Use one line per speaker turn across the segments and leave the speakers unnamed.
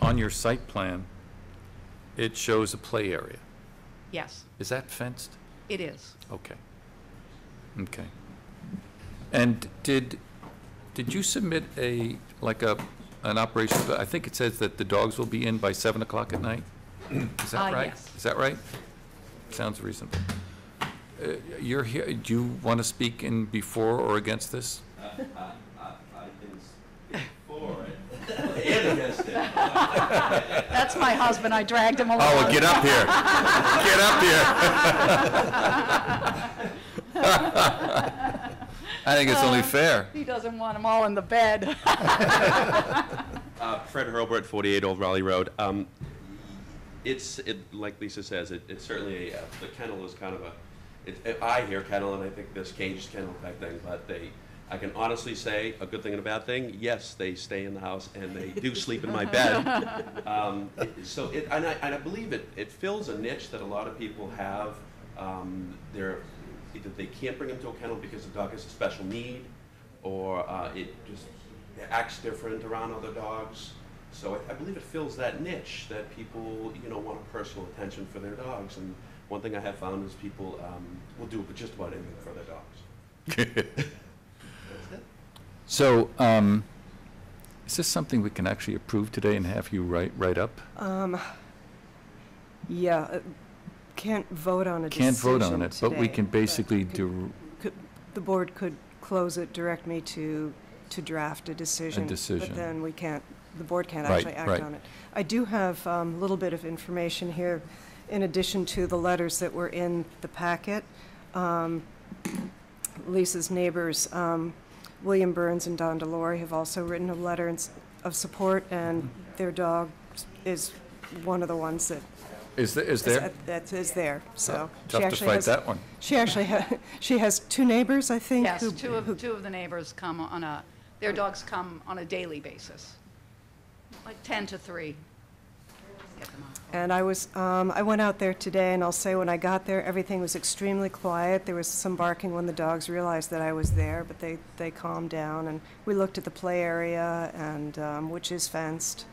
on your site plan, it shows a play area.
Yes,
Is that fenced?
it is.
Okay. Okay. And did, did you submit a, like a, an operation, I think it says that the dogs will be in by seven o'clock at night? Is that
Uh,
right?
yes.
Is that right? Sounds reasonable. Uh, You're here, do you want to speak in before or against this?
That's my husband, I dragged him along.
Oh, well, get up here. Get up here. I think it's only fair.
He doesn't want them all in the bed.
Uh, Fred Hurlbert, 48 Old Raleigh Road. Um, It's, it- like Lisa says, it- it's certainly, a, uh, the kennel is kind of a, it- it- I hear kennel, and I think this caged kennel type thing, but they, I can honestly say, a good thing and a bad thing, yes, they stay in the house, and they do sleep in my bed. Um, it- So, it- and I, and I believe it, it fills a niche that a lot of people have. Um, They're, either they can't bring them to a kennel because the dog has a special need, or uh, it just acts different around other dogs. So I, I believe it fills that niche that people, you know, want personal attention for their dogs. And one thing I have found is people um, will do just about anything for their dogs.
So, um, is this something we can actually approve today and have you write, write up?
Yeah, uh, can't vote on a decision
Can't vote on it, but we
today,
can basically
could-
do
could- The board could close it, direct me to, to draft a decision.
decision.
But then we can't, the board can't
Right,
actually act
right.
on it. I do have a little bit of information here, in addition to the letters that were in the packet. Um, Lisa's neighbors, um, William Burns and Don Delory, have also written a letter in s- of support, and their dog is one of the ones that
is, the- is
is-
there?
That is there, so. uh, she
Tough to
actually
fight
has-
that one.
She actually, ha- she has two neighbors, I think.
Yes,
who-
two of, two of the neighbors come on a, their dogs come on a daily basis, like 10 to 3. Get them out.
And I was, um, I went out there today, and I'll say, when I got there, everything was extremely quiet. There was some barking when the dogs realized that I was there, but they, they calmed down, and we looked at the play area, and, um, which is fenced.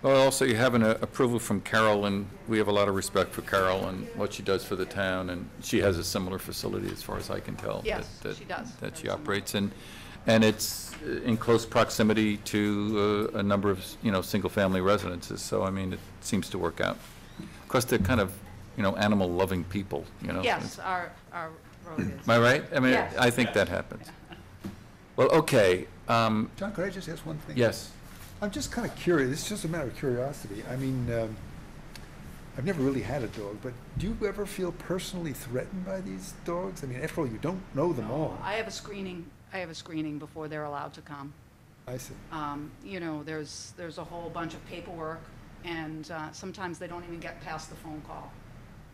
Well, also, you have an uh, approval from Carol, and we have a lot of respect for Carol and what she does for the town, and she has a similar facility, as far as I can tell.
Yes,
that- that-
she does.
That she
Very similar.
operates in, and it's uh, in close proximity to uh, a number of, you know, single-family residences, so, I mean, it seems to work out. Of course, they're kind of, you know, animal-loving people, you know?
Yes, our, our road is.
Am I right? I mean,
Yes.
I think that happens. Well, okay, um,
John, could I just ask one thing?
yes,
I'm just kind of curious. It's just a matter of curiosity. I mean, um, I've never really had a dog, but do you ever feel personally threatened by these dogs? I mean, after all, you don't know them all.
I have a screening, I have a screening before they're allowed to come.
I see.
Um, You know, there's, there's a whole bunch of paperwork, and uh, sometimes they don't even get past the phone call.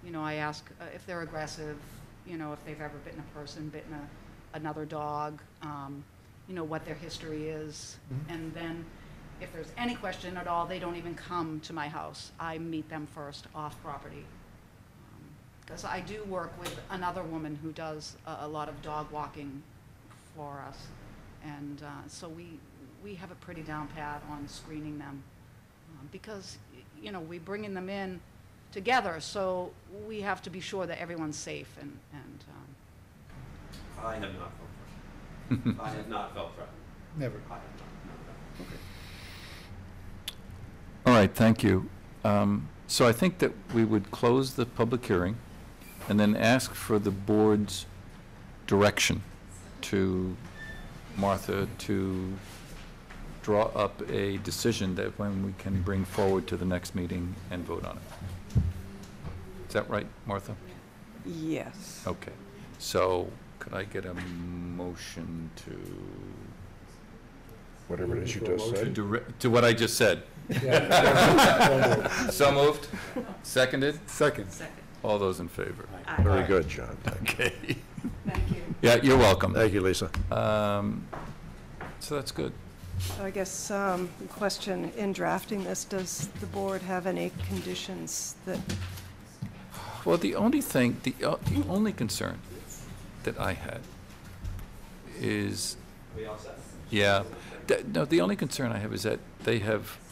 You know, I ask uh, if they're aggressive, you know, if they've ever bitten a person, bitten a, another dog, um, you know, what their history is. And then if there's any question at all, they don't even come to my house. I meet them first off property. Because I do work with another woman who does a, a lot of dog walking for us. And uh, so we, we have a pretty down pat on screening them. Um, Because, y- you know, we're bringing them in together, so we have to be sure that everyone's safe and, and, um,
I have not felt threatened. I have not felt threatened.
Never.
I have not.
all right, thank you. Um, So I think that we would close the public hearing and then ask for the board's direction to Martha to draw up a decision that when we can bring forward to the next meeting and vote on it. Is that right, Martha?
Yes.
Okay, so could I get a motion to
whatever it is you just
To
said.
dire- To what I just said. So moved? Seconded?
Second.
All those in favor?
Very good, John.
Okay.
Thank you.
Yeah, you're welcome.
Thank you, Lisa.
Um, So that's good.
So I guess, um, question, in drafting this, does the board have any conditions that,
Well, the only thing, the o- the only concern that I had is,
We all set?
yeah, th- no, the only concern I have is that they have